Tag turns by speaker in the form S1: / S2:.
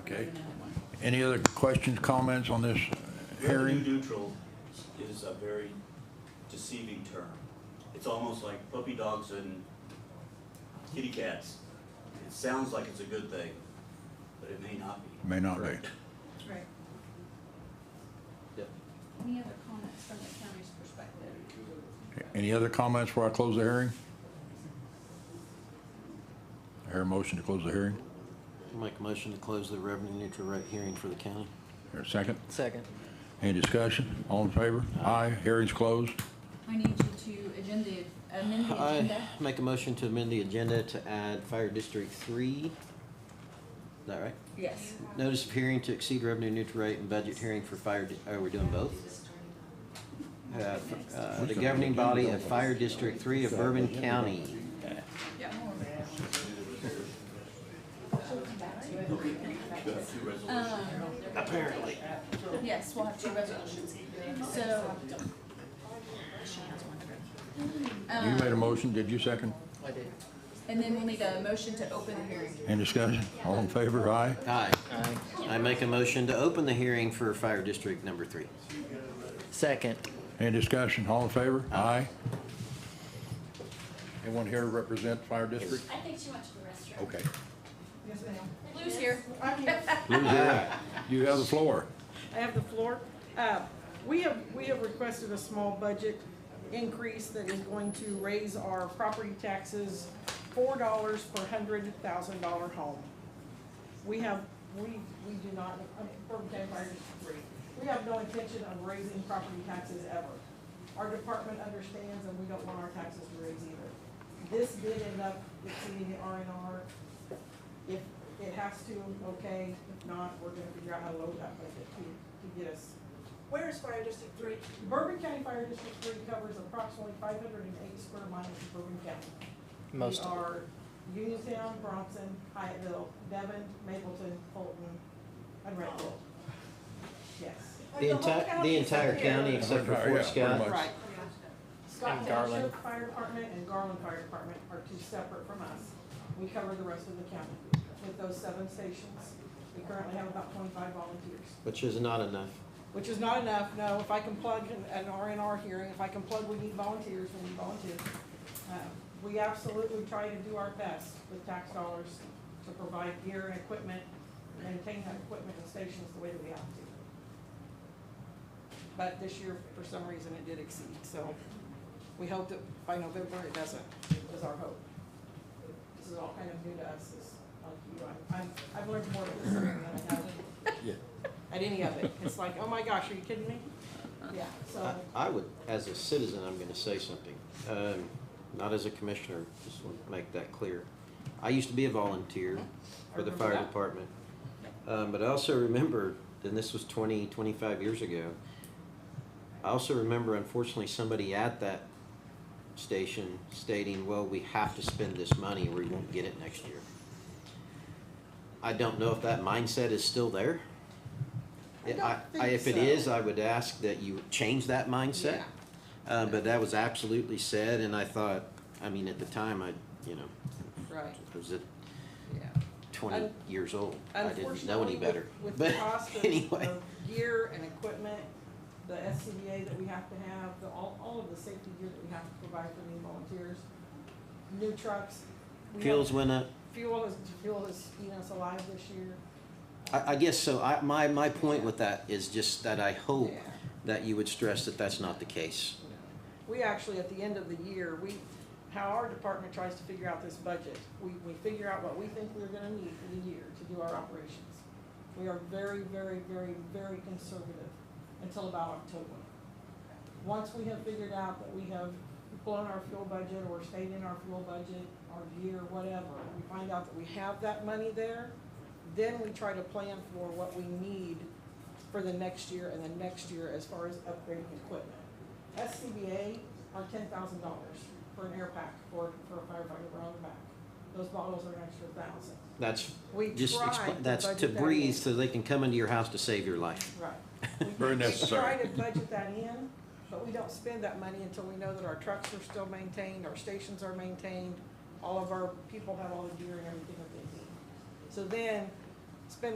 S1: Okay. Any other questions, comments on this
S2: Revenue
S1: hearing?
S2: neutral is a very deceiving term. It's almost like puppy dogs and kitty cats. It sounds like it's a good thing, but it may not be.
S1: May not be.
S3: Right.
S2: Yep.
S3: Any other comments from the county's perspective?
S1: Any other comments before I close the hearing? I hear a motion to close the hearing.
S4: Make a motion to close the revenue neutral rate hearing for the county.
S1: Here, second.
S5: Second.
S1: Any discussion? All in favor? Aye. Hearing's closed.
S3: I need you to agenda, amend the
S4: I
S3: agenda.
S4: make a motion to amend the agenda to add Fire District Three. Is that right?
S3: Yes.
S4: Notice of hearing to exceed revenue neutral rate and budget hearing for fire, di- oh, we're doing both? Uh, f- uh, The governing body of Fire District Three of Bourbon County.
S3: Yeah.
S4: Apparently.
S3: Yes, we'll have two resolutions. So.
S1: You made a motion, did you second?
S5: I did.
S3: And then we'll need a motion to open the hearing.
S1: Any discussion? All in favor? Aye.
S4: Aye. I make a motion to open the hearing for Fire District Number Three.
S5: Second.
S1: Any discussion? All in favor? Aye. Anyone here represent fire district?
S6: I think she went to the restroom.
S1: Okay.
S3: Lou's here.
S1: You have the floor.
S7: I have the floor. Uh, We have, we have requested a small budget increase that is going to raise our property taxes four dollars per hundred thousand dollar home. We have, we, we do not, I mean, Bourbon County Fire District Three, we have no intention of raising property taxes ever. Our department understands and we don't want our taxes to raise either. This did end up exceeding the R and R. If it has to, okay, if not, we're gonna figure out how to load that budget to, to get us. Where is Fire District Three? Bourbon County Fire District Three covers approximately five hundred and eighty square miles of Bourbon County.
S5: Most
S7: We
S5: of
S7: are Uniontown, Bronson, Hyattville, Devon, Mapleton, Fulton, and Redwood. Yes.
S4: The entire, the entire county except for
S1: Yeah,
S4: Fort
S1: pretty much.
S4: Scott.
S7: Right. Scott
S5: And
S7: County
S5: Garland.
S7: Sheriff Fire Department and Garland Fire Department are two separate from us. We cover the rest of the county with those seven stations. We currently have about twenty-five volunteers.
S4: Which is not enough.
S7: Which is not enough, no, if I can plug an- an R and R hearing, if I can plug, we need volunteers, we need volunteers. Uh, We absolutely try to do our best with tax dollars to provide gear and equipment, maintain that equipment and stations the way that we have to. But this year, for some reason, it did exceed, so we hope that by November it doesn't, is our hope. This is all kind of new to us, is, like, you know, I'm- I'm, I've learned more of this than I have at any of it. It's like, oh my gosh, are you kidding me? Yeah, so,
S4: I- I would, as a citizen, I'm gonna say something, um, not as a commissioner, just want to make that clear. I used to be a volunteer for the
S7: I remember
S4: fire
S7: that.
S4: department. Um, but I also remember, and this was 20, 25 years ago, I also remember unfortunately somebody at that station stating, well, we have to spend this money or we won't get it next year. I don't know if that mindset is still there.
S7: I don't think
S4: If it
S7: so.
S4: is, I would ask that you change that mindset.
S7: Yeah.
S4: Uh, but that was absolutely said, and I thought, I mean, at the time, I, you know,
S7: right,
S4: was it
S7: yeah.
S4: twenty
S7: Un-
S4: years old? I didn't know any
S7: Unfortunately,
S4: better.
S7: With with
S4: But
S7: the cost of,
S4: anyway,
S7: of gear and equipment, the SCBA that we have to have, the, all, all of the safety gear that we have to provide for new volunteers, new trucks. we have-
S4: fuels went up.
S7: Fuel is, fuel is eating us alive this year.
S4: I, I guess so. I, my, my point with that is just that I hope
S7: Yeah.
S4: that you would stress that that's not the case.
S7: We actually, at the end of the year, we, how our department tries to figure out this budget, we, we figure out what we think we're gonna need for the year to do our operations. We are very, very, very, very conservative until about October. Once we have figured out that we have blown our fuel budget or stayed in our fuel budget, our year, whatever, we find out that we have that money there, then we try to plan for what we need for the next year and the next year as far as upgrading equipment. SCBA are ten thousand dollars for an air pack for, for a firefighter around the back. Those bottles are an extra thousand.
S4: That's
S7: We
S4: just,
S7: tried
S4: expl-
S7: to
S4: that's to
S7: budget that
S4: breathe
S7: in.
S4: so they can come into your house to save your life.
S7: Right.
S1: Very necessary.
S7: We try to budget that in, but we don't spend that money until we know that our trucks are still maintained, our stations are maintained, all of our people have all the gear and everything that they need. So then, spend